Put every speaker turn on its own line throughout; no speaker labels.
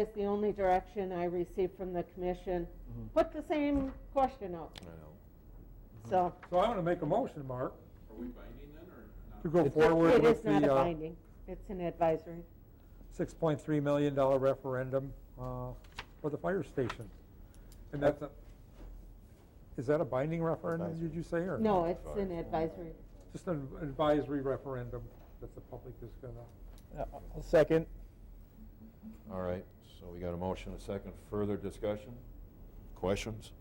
is the only direction I received from the commission.
Mm-hmm.
Put the same question out,
I know.
so.
So I'm gonna make a motion, Mark,
Are we binding then, or not?
to go forward
It
with
is not a
the, uh,
binding, it's an advisory.
six point three million dollar referendum, uh, for the fire station. And that's a, is that a binding referendum, did you say, or?
No, it's an advisory.
Just an advisory referendum that the public is gonna,
Uh, Second.
All right, so we got a motion, a second, further discussion? Questions?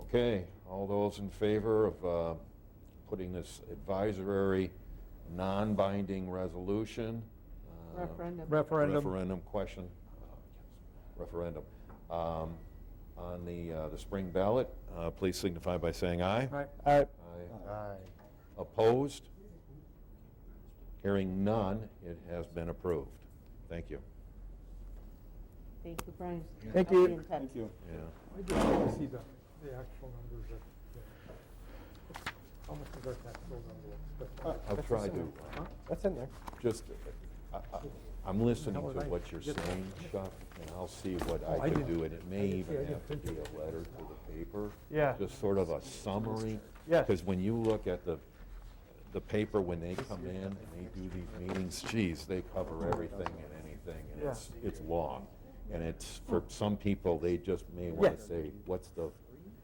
Okay, all those in favor of uh, putting this advisory, non-binding resolution? uh,
Referendum.
Referendum.
Referendum question, uh, referendum, um, on the, uh, the spring ballot, uh, please signify by saying aye.
right?
All right.
Aye. Opposed? Hearing none, it has been approved. Thank you.
Thank you, Brian.
Thank
I'll be
you.
in touch.
Thank you.
Yeah.
I just want to see the, the actual numbers of, the- how much is our tax bill number?
I'll try to,
Huh?
That's in there.
just, I- I- I'm listening to
How would I
what you're
get that?
saying, Chuck, and I'll see what
Oh,
I
I
can
didn't-
do, and it may
I didn't see- I
even
didn't
have to be
think
a letter to the paper.
Yeah.
Just sort of a summary.
Yes.
Because when you look at the, the paper, when they come in and they do these meetings, geez, they cover everything and anything, and
Yeah.
it's, it's long. And it's, for some people, they just may want to
Yes.
say, what's the,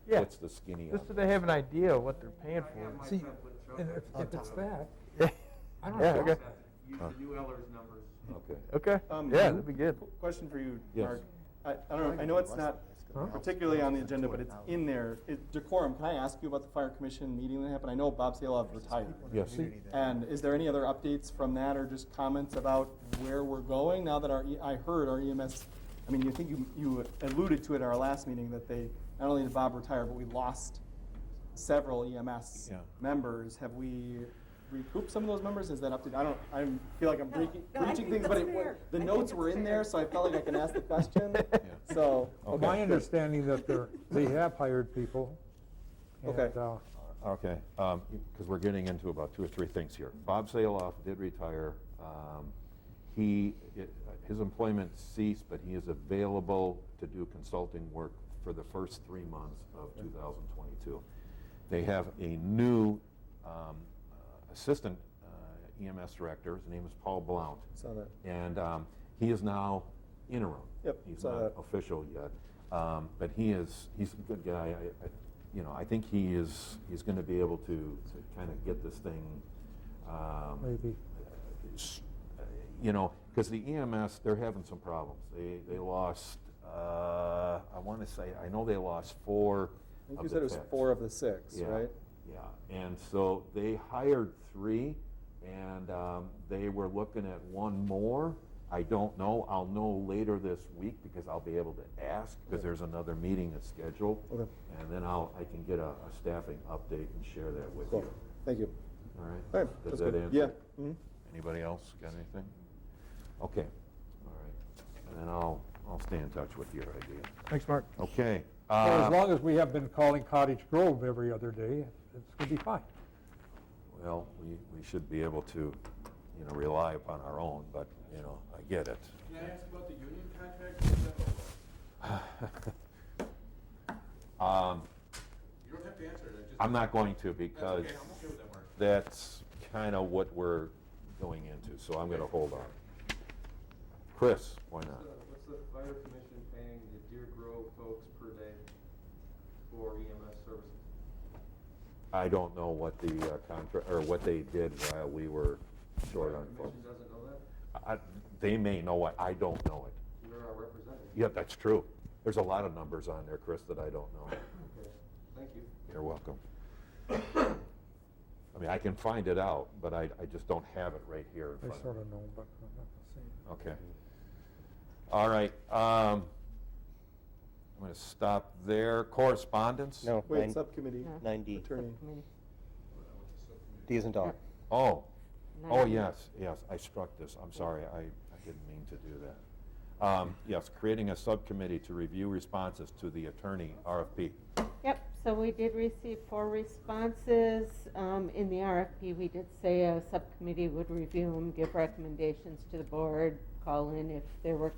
Yeah.
what's the skinny on
Just so they have an idea of what they're paying for.
See, and if, if it's that,
Yeah.
I don't
Yeah,
know.
okay.
Use the new Ellers numbers.
it? Okay.
Okay,
Um,
yeah, that'd be good.
qu- Question for you,
Yes.
Mark. I, I don't know, I know it's not
Huh?
particularly on the agenda, but it's in there. It- Decorum, can I ask you about the fire commission meeting that happened? I know Bob Saleh retired.
Yes.
And is there any other updates from that or just comments about where we're going now that our, E- I heard our EMS, I mean, you think you, you alluded to it at our last meeting that they, not only did Bob retire, but we lost several EMS
Yeah.
members. Have we recouped some of those members? Is that updated? I don't, I feel like I'm
No,
breaking,
no, I
breaching
think
things, but
that's
it, wa-
fair.
the
I think
notes
it's
were in there,
fair.
so I felt like I can ask the question.
Yeah.
So,
Well, My
okay.
understanding that they're, they have hired people. and,
Okay.
uh,
Okay, um, because we're getting into about two or three things here. Bob Saloff did retire. Um, He, it- his employment ceased, but he is available to do consulting work for the first three months of 2022. They have a new um, uh, assistant uh, EMS director, his name is Paul Blount.
Saw that.
And um, he is now interim.
Yep,
He's
saw
not
that.
official yet. Um, But he is, he's a good guy. I- I- You know, I think he is, he's going to be able to kind of get this thing. um,
Maybe.
s- uh, You know, because the EMS, they're having some problems. They, they lost, uh, I want to say, I know they lost four
I think
of
you
the
said it was
techs.
four of the six,
Yeah,
right?
Yeah, and so they hired three, and um, they were looking at one more. I don't know, I'll know later this week because I'll be able to ask, because there's another meeting that's scheduled.
Okay.
And then I'll, I can get a a staffing update and share that with
Cool,
you.
thank you.
All
All
right?
right,
Does
that's
that
good.
answer? Mm-hmm. it?
Yeah. mhm.
Anybody else got anything? Okay, all right. And then I'll, I'll stay in touch with your idea.
Thanks, Mark.
Okay.
Well,
uh,
as long as we have been calling Cottage Grove every other day, it's gonna be fine.
Well, we, we should be able to, you know, rely upon our own, but, you know, I get it.
Can I ask about the union contract? Is that what-
Um,
You don't have to answer it, I just.
I'm not going to
That's okay,
because
I'm okay with that, Mark.
that's kind of what we're going into, so I'm gonna hold on. Chris, why not?
What's the fire commission paying the Deer Grove folks per day for EMS services?
I don't know what the uh, contra, or what they did while we were short on
The
folks.
commission doesn't know that?
I- They may know it, I don't know it.
You're our representative.
Yeah, that's true. There's a lot of numbers on there, Chris, that I don't know.
Okay, thank you.
You're welcome. I mean, I can find it out, but I, I just don't have it right here in
I
front of
sort
me.
of know, but I'm not gonna say it.
Okay. All right, um, I'm gonna stop there. Correspondence?
No,
Wait,
nine,
subcommittee,
No.
nine D.
attorney.
Subcommittee.
D isn't dog.
Oh, oh,
Nine.
yes, yes, I struck this. I'm sorry, I, I didn't mean to do that. Um, yes, creating a subcommittee to review responses to the attorney RFP.
Yep, so we did receive four responses. Um, In the RFP, we did say a subcommittee would review them, give recommendations to the board, call in if there were